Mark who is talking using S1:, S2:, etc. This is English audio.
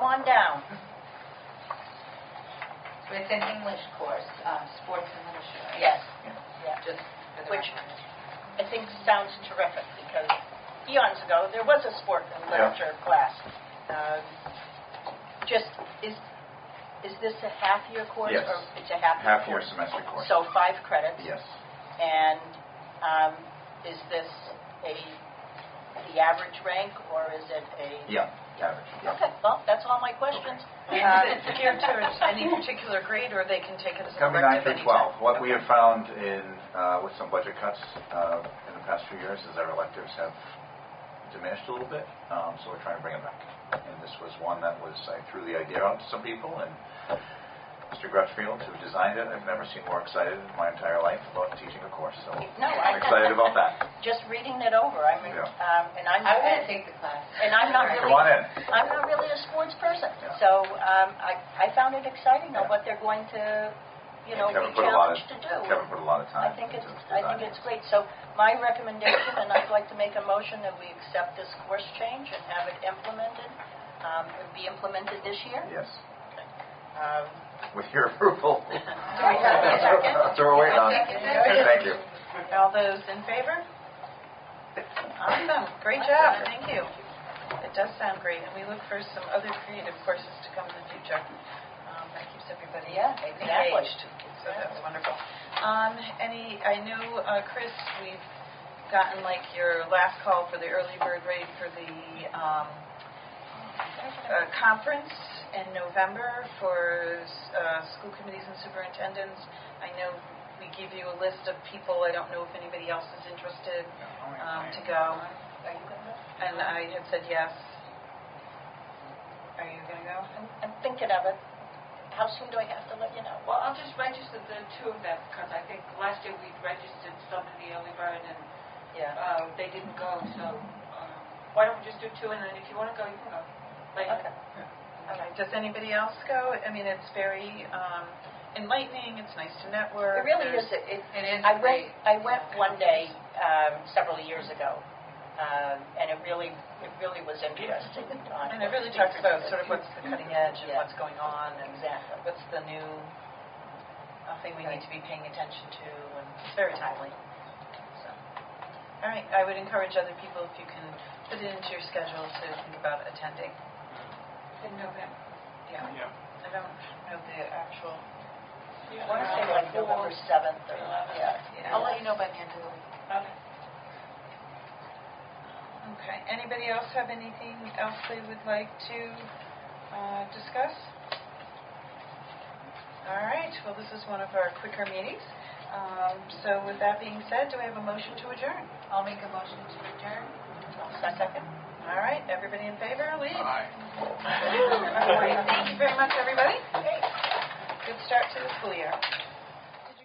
S1: on down.
S2: With an English course, um, sports and literature. right?
S1: Yes, yeah.
S2: Just for the
S1: Which-
S2: record.
S1: I think sounds terrific because eons ago, there was a sport and
S3: Yeah.
S1: literature class. Um, Just, is, is this a half-year course?
S3: Yes.
S1: or It's a half-year course?
S3: Half-year semester course.
S1: So five credits?
S3: Yes.
S1: And um, is this a, the average rank or is it a?
S3: Yeah, average, yeah.
S1: Okay, well, that's all my questions.
S4: Uh, Geared towards any particular grade, or they can take it as an
S3: Coming nine
S4: elective
S3: through
S4: anytime?
S3: 12. What we
S4: Okay.
S3: have found in, uh, with some budget cuts uh, in the past few years is our electives have diminished a little bit, um, so we're trying to bring them back. And this was one that was, I threw the idea out to some people, and Mr. Crutchfield, who designed it, I've never seen more excited in my entire life about teaching a course, so
S1: No, I-
S3: I'm excited about that.
S1: Just reading it over, I mean,
S3: Yeah.
S1: um, and I'm.
S2: I want to take the class.
S1: And I'm not really.
S3: Come on in.
S1: I'm not really a sports person,
S3: Yeah.
S1: so um, I, I found it exciting on
S3: Yeah.
S1: what they're going to, you know, be
S3: Kevin put a lot of-
S1: challenged to do.
S3: Kevin put a lot of
S1: I
S3: time.
S1: think it's,
S3: into
S1: I
S3: designing
S1: think it's
S3: this.
S1: great. So my recommendation, and I'd like to make a motion that we accept this course change and have it implemented, um, it'll be implemented this year.
S3: Yes,
S1: Um,
S3: with your approval.
S1: Do we have a second?
S3: Throw away on it.
S2: Second.
S3: Thank you.
S4: All those in favor? Awesome, great job, thank you. It does sound great, and we look for some other creative courses to come in the future. Um, That keeps everybody
S1: Yeah, exactly.
S4: engaged, so that's wonderful. Um, Any, I know, uh, Chris, we've gotten like your last call for the early bird rate for the um, uh, conference in November for uh, school committees and superintendents. I know we give you a list of people, I don't know if anybody else is interested um, to go.
S1: Are you gonna,
S4: And I had said yes. Are you going to go?
S1: I'm, I'm thinking of it. How soon do I have to let you know?
S5: Well, I'll just register the two of them, because I think last year we registered some in the early bird, and
S1: Yeah.
S5: uh, they didn't go, so um, why don't we just do two, and then if you want to go, you can go.
S1: Okay.
S5: Later.
S4: Okay. Does anybody else go? I mean, it's very um, enlightening. It's nice to network.
S1: It really
S4: There's-
S1: is, it, it-
S2: It is
S1: I went,
S2: great.
S1: I went one day um, several years ago, um, and it really, it really was interesting. on
S4: And
S1: what
S4: it really
S1: the
S4: talks about
S1: speakers
S4: sort of
S1: did.
S4: what's the cutting edge
S1: Mm-hmm.
S4: and
S1: Yeah.
S4: what's going on and
S1: Exactly.
S4: what's the new uh, thing we need to be paying attention to. And it's very timely. So, All right. I would encourage other people, if you can put it into your schedule, to think about attending.
S5: In November.
S4: Yeah. I don't know the actual.
S1: I want to say like November 7th or, yeah.
S4: Yeah.
S2: I'll let you know by the end of the week.
S5: Okay.
S4: Okay, anybody else have anything else they would like to uh, discuss? All right, well, this is one of our quicker meetings. Um, So with that being said, do we have a motion to adjourn?
S2: I'll make a motion to adjourn.
S1: Second?
S4: All right, everybody in favor, leave. Thank you very much, everybody. Good start to the school year.